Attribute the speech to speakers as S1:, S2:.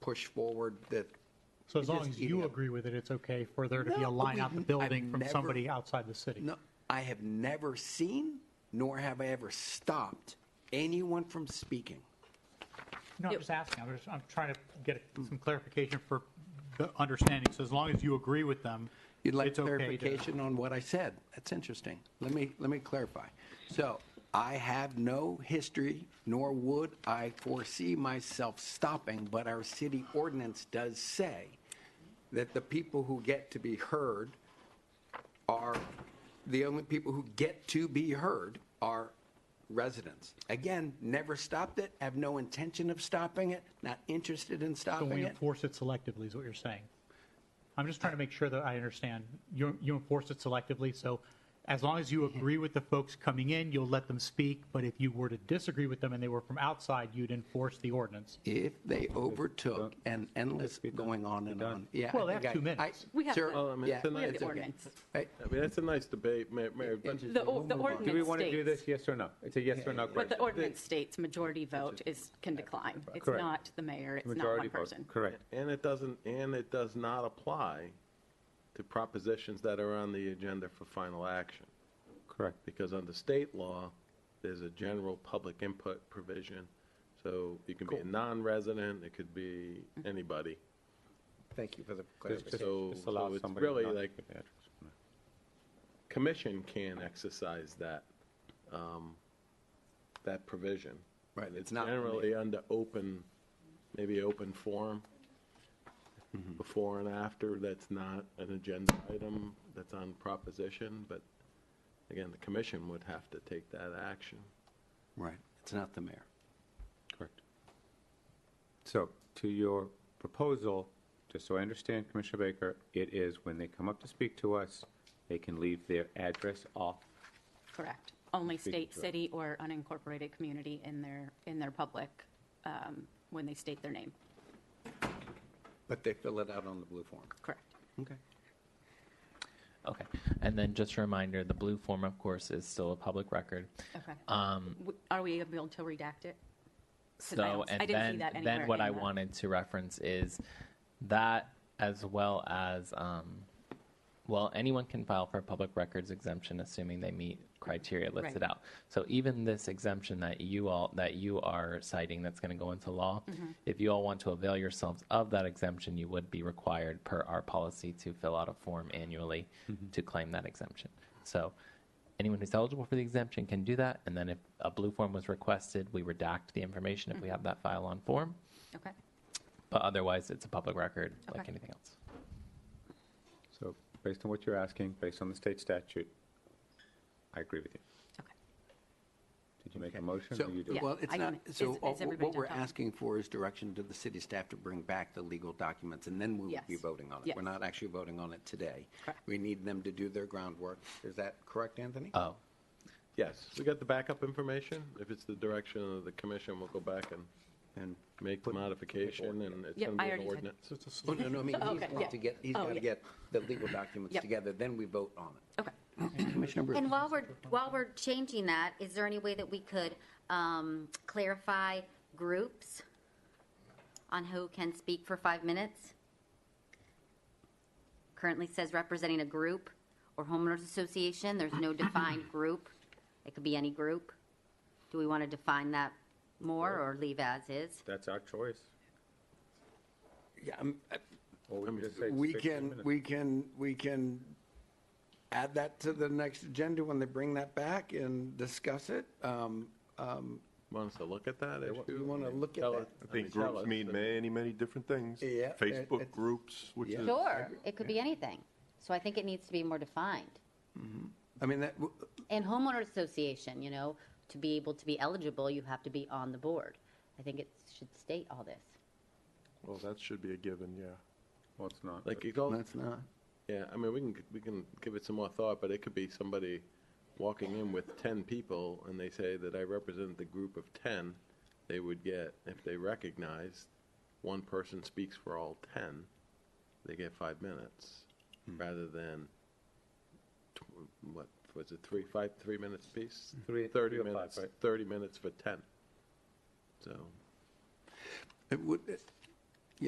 S1: push forward that.
S2: So as
S1: It
S2: long
S1: is
S2: as you
S1: eating up.
S2: agree with it, it's okay for there to be
S1: No,
S2: a line out the
S1: we've-
S2: building
S1: I've
S2: from
S1: never-
S2: somebody outside the city?
S1: No, I have never seen, nor have I ever stopped anyone from speaking.
S2: No, I'm just asking, I'm just, I'm trying to get some clarification for the understanding, so as long as you agree with them,
S1: You'd like
S2: it's okay to...
S1: clarification on what I said? That's interesting. Let me, let me clarify. So I have no history, nor would I foresee myself stopping, but our city ordinance does say that the people who get to be heard are, the only people who get to be heard are residents. Again, never stopped it, have no intention of stopping it, not interested in
S2: So
S1: stopping
S2: we
S1: it.
S2: enforce it selectively, is what you're saying? I'm just trying to make sure that I understand. You, you enforce it selectively, so as long as you agree with the folks coming in, you'll let them speak, but if you were to disagree with them and they were from outside, you'd enforce the ordinance.
S1: If they overtook and endless going on and on, yeah. I
S2: Well, they
S1: think
S2: have two
S1: I- I-
S2: minutes.
S3: We have
S1: sir,
S3: that. Oh,
S4: I mean,
S1: yeah,
S4: it's a
S1: it's
S4: nice- We have the
S1: okay.
S3: ordinance.
S1: I-
S4: I mean, that's a nice debate, Mayor, Mayor, but
S1: interesting.
S3: The,
S1: We'll
S3: or- the
S1: move on.
S3: ordinance
S5: Do we want to do
S3: states-
S5: this, yes or no? It's a yes or no
S3: But the
S5: question.
S3: ordinance states majority vote is, can decline. It's
S5: Correct.
S3: not the mayor, it's not one
S5: Majority vote.
S3: person.
S5: Correct.
S4: and it doesn't, and it does not apply to propositions that are on the agenda for final action.
S5: Correct.
S4: Because under state law, there's a general public input provision. So you can be a non-resident, it could be anybody.
S1: Thank you for the
S5: Just-
S1: clarification.
S5: just-
S4: So-
S5: just allow
S4: so it's
S5: somebody
S4: really
S5: not-
S4: like- Commission can exercise that, um, that provision.
S1: Right,
S4: And
S1: it's not-
S4: Generally under open, maybe open forum,
S1: Mm-hmm.
S4: before and after, that's not an agenda item, that's on proposition, but again, the commission would have to take that action.
S1: Right, it's not the mayor.
S5: Correct. So to your proposal, just so I understand, Commissioner Baker, it is when they come up to speak to us, they can leave their address off.
S3: Correct. Only
S5: Speak
S3: state,
S5: to it.
S3: city, or unincorporated community in their, in their public um, when they state their name.
S1: But they fill it out on the blue form.
S3: Correct.
S1: Okay.
S6: Okay. And then just a reminder, the blue form, of course, is still a public record.
S3: Okay.
S6: Um,
S3: W- Are we able to redact it? 'Cause I
S6: so,
S3: don't- I
S6: and
S3: didn't see
S6: then,
S3: that anywhere
S6: then what
S3: in
S6: I
S3: the-
S6: wanted to reference is that as well as, um, well, anyone can file for a public records exemption, assuming they meet criteria listed
S3: Right.
S6: out. So even this exemption that you all, that you are citing, that's going to go into law,
S3: Mm-hmm.
S6: if you all want to avail yourselves of that exemption, you would be required per our policy to fill out a form annually to claim that exemption. So anyone who's eligible for the exemption can do that. And then if a blue form was requested, we redact the information
S3: Mm-hmm.
S6: if we have that file on form.
S3: Okay.
S6: But otherwise, it's a public record like
S3: Okay.
S6: anything else.
S5: So based on what you're asking, based on the state statute, I agree with you.
S3: Okay.
S5: Did you make a motion
S1: So,
S5: or you do?
S3: Yeah,
S1: well, it's
S3: I
S1: not,
S3: can- is-
S1: so
S3: is
S1: all-
S3: everybody
S1: what
S3: done
S1: we're
S3: talking?
S1: asking for is direction to the city staff to bring back the legal documents, and then we will be
S3: Yes.
S1: voting on it.
S3: Yes.
S1: We're not actually voting on it today.
S3: Correct.
S1: We need them to do their groundwork. Is that correct, Anthony?
S6: Oh,
S4: Yes, we got the backup information. If it's the direction of the commission, we'll go back and
S1: And,
S4: make the modification, and it's
S3: Yep,
S4: going to
S3: I
S4: be an
S3: already did.
S4: ordinance.
S1: oh, no, no, I mean, he's
S3: Okay,
S1: got
S3: yeah.
S1: to get, he's
S3: Oh,
S1: got to
S3: yeah.
S1: get the legal documents
S3: Yep.
S1: together, then we vote on it.
S3: Okay.
S1: Commissioner Bruce?
S7: And while we're, while we're changing that, is there any way that we could um, clarify groups on who can speak for five minutes? Currently says representing a group or homeowners association, there's no defined group. It could be any group. Do we want to define that more or leave as is?
S5: That's our choice.
S1: Yeah, I'm- uh, I-
S5: Or we can just say
S1: We
S5: 15
S1: can,
S5: minutes.
S1: we can, we can add that to the next agenda when they bring that back and discuss it. Um, um,
S4: Want us to look at that issue?
S1: You want to look at
S4: Tell
S1: that?
S4: us-
S8: I think
S4: mean, tell
S8: groups
S4: us
S8: mean
S4: that-
S8: many, many different things.
S1: Yeah, it-
S8: Facebook
S1: it's-
S8: groups, which
S1: Yeah.
S8: is.
S7: Sure, it could be anything. So I think it needs to be more defined.
S1: I mean, that, w-
S7: And homeowner association, you know, to be able to be eligible, you have to be on the board. I think it should state all this.
S8: Well, that should be a given, yeah.
S5: Well, it's not.
S4: Like, it all,
S1: that's not,
S4: yeah, I mean, we can, we can give it some more thought, but it could be somebody walking in with 10 people, and they say that I represent the group of 10, they would get, if they recognize, one person speaks for all 10, they get five minutes, rather than, tw- what, was it three, five, three minutes piece?
S5: Three-
S4: 30
S5: three or five,
S4: minutes,
S5: right?
S4: 30 minutes for 10. So,
S1: it would,